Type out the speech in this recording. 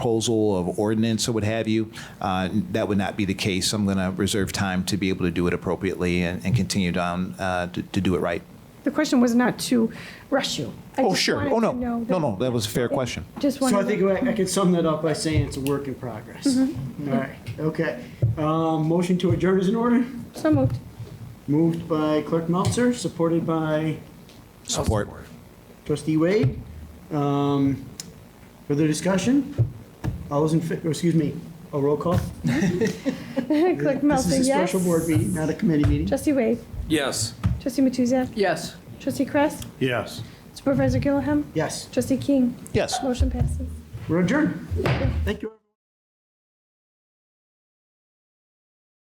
proposal of ordinance or what have you, uh, that would not be the case. I'm going to reserve time to be able to do it appropriately and and continue down uh, to to do it right. The question was not to rush you. I Oh, just sure. wanted Oh, to no. know No, that- no, that was a fair question. Just So I wanted, think to- I I could sum that up by saying it's a work in progress. All right, okay. Um, Motion to adjourn is in order, so moved. moved by Clerk Meltzer, supported by Support. Trustee Wade. Um, Further discussion? All those in, fa- or excuse me, a roll call? Clerk Melton, This is a yes. special board meeting, not a committee meeting. Trustee Wade, Yes. trustee Matuzak, Yes. trustee Kress, Yes. supervisor Gilliam, Yes, trustee King. Yes. Motion passes. we're adjourned. Thank you.